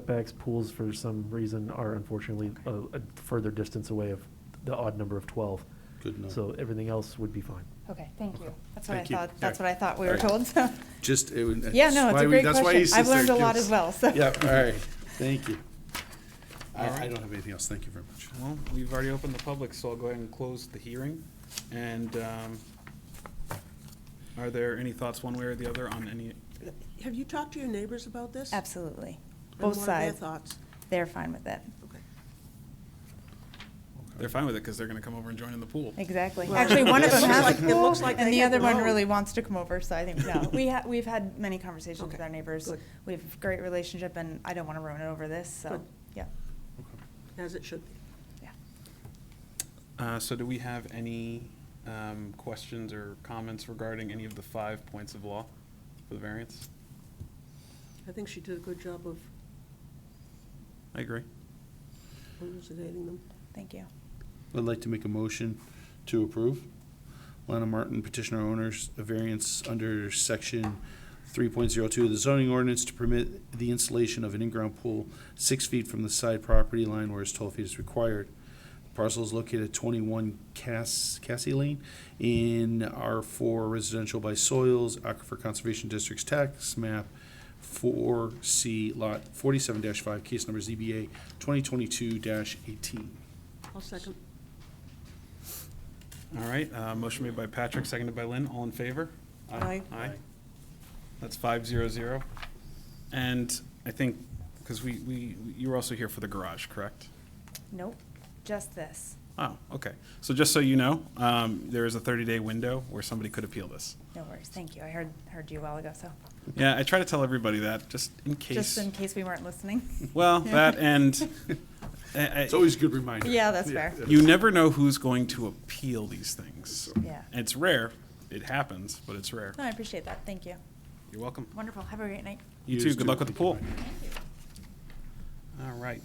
setbacks, pools for some reason are unfortunately a, a further distance away of the odd number of twelve. Good enough. So everything else would be fine. Okay, thank you. That's what I Thank you. thought, that's All what I thought we were All right. told, so. Just. it would- Yeah, that's no, it's why a we- great that's why he question. I've sits there, learned a lot gives- as well, so. Yeah, all right, thank you. I, All I right. don't have anything else, thank you very much. Well, we've already opened the public, so I'll go ahead and close the hearing. And um, are there any thoughts one way or the other on any, Have you talked to your neighbors about this? Absolutely. And Both what are their sides, thoughts? they're fine with it. Okay. they're fine with it because they're going to come over and join in the pool. Exactly. Well, Actually, one of it them looks has a like- it pool, looks like and they the have other their one really own. wants to come over, so I think, no. We ha, we've had many conversations with Okay, our neighbors. good. We have a great relationship, and I don't want to ruin it over this, so, Good. yeah, As it should be. yeah. Uh, So do we have any um, questions or comments regarding any of the five points of law for the variance? I think she did a good job of I agree. elucidating them. Thank you. I'd like to make a motion to approve. Lana Martin, petitioner owners, a variance under section three point zero two of the zoning ordinance to permit the installation of an in-ground pool six feet from the side property line whereas twelve feet is required. The Parcel is located at twenty-one Cass, Cassie Lane in R four residential by soils, Aquifer Conservation District's tax map four C lot forty-seven five, case number ZBA twenty twenty-two eighteen. I'll second. All right, uh, motion made by Patrick, seconded by Lynn. All in favor? Aye. Aye. That's five zero zero. And I think, because we, we, you were also here for the garage, correct? Nope, just this. Oh, okay. So just so you know, um, there is a 30-day window where somebody could appeal this. No worries, thank you. I heard, heard you a while ago, so, Yeah, I try to tell everybody that, just in case. just in case we weren't listening. Well, that and, I- I- It's always a good reminder. Yeah, that's fair. you never know who's going to appeal these things. Yeah. It's rare. It happens, but it's rare. No, I appreciate that, thank you. You're welcome. Wonderful, have a great night. You You too, just good do luck with it. the Thank pool. you, All right.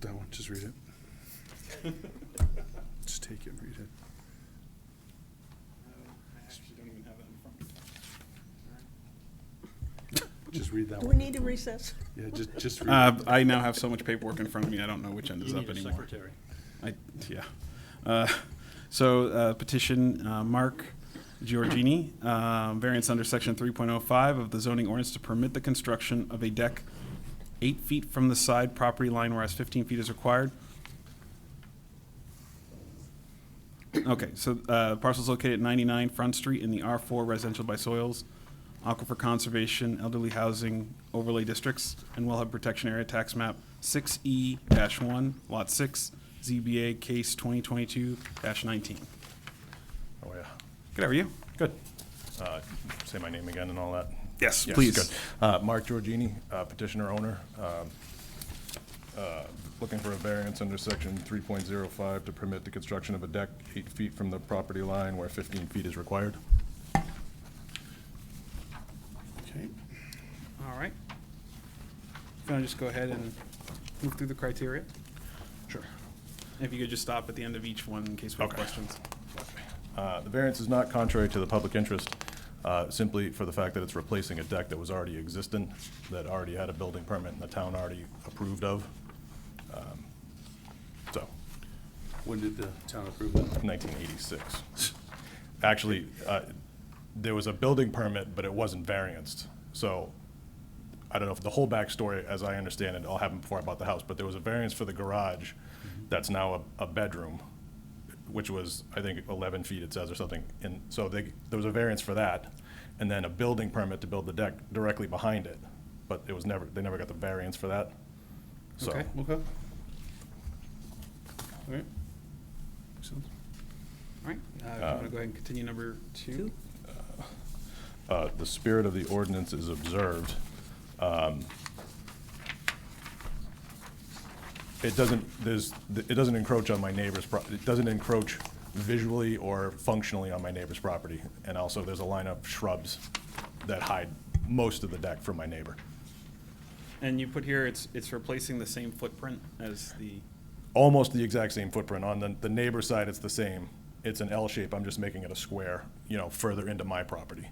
That one, just read it. Just take it and read it. Just read that Do we one. need to recess? Yeah, just, just read Uh, it. I now have so much paperwork in front of me, I don't know which end is You up need a anymore. secretary. I, yeah. Uh, So uh, petition, uh, Mark Giorgini, um, variance under section 3.05 of the zoning ordinance to permit the construction of a deck eight feet from the side property line whereas 15 feet is required. Okay, so uh, parcel's located at 99 Front Street in the R4 residential by soils, aquifer conservation, elderly housing overlay districts, and wellhead protection area tax map 6E-1, Lot 6, ZBA Case 2022-19. Oh, yeah. Good, how are you? Good. Uh, Say my name again and all that? Yes, please. good. Uh, Mark Giorgini, uh, petitioner owner, um, uh, looking for a variance under section 3.05 to permit the construction of a deck eight feet from the property line where 15 feet is required. Okay. All right. Can I just go ahead and move through the criteria? Sure. If you could just stop at the end of each one in case we have Okay. questions. Uh, The variance is not contrary to the public interest, uh, simply for the fact that it's replacing a deck that was already existent, that already had a building permit and the town already approved of. Um, So, When did the town approve that? 1986. Actually, uh, there was a building permit, but it wasn't varianced. So I don't know if the whole backstory, as I understand it, all happened before I bought the house, but there was a variance for the garage that's now a, a bedroom, which was, I think, 11 feet, it says, or something. And so they, there was a variance for that, and then a building permit to build the deck directly behind it. But it was never, they never got the variance for that. So, Okay. Okay. All right. Makes sense. All right, uh, if you want to go ahead and continue number two? uh, the spirit of the ordinance is observed. Um, It doesn't, there's, it doesn't encroach on my neighbor's, pro- it doesn't encroach visually or functionally on my neighbor's property. And also, there's a line of shrubs that hide most of the deck from my neighbor. And you put here, it's, it's replacing the same footprint as the, Almost the exact same footprint. On the, the neighbor's side, it's the same. It's an L shape, I'm just making it a square, you know, further into my property.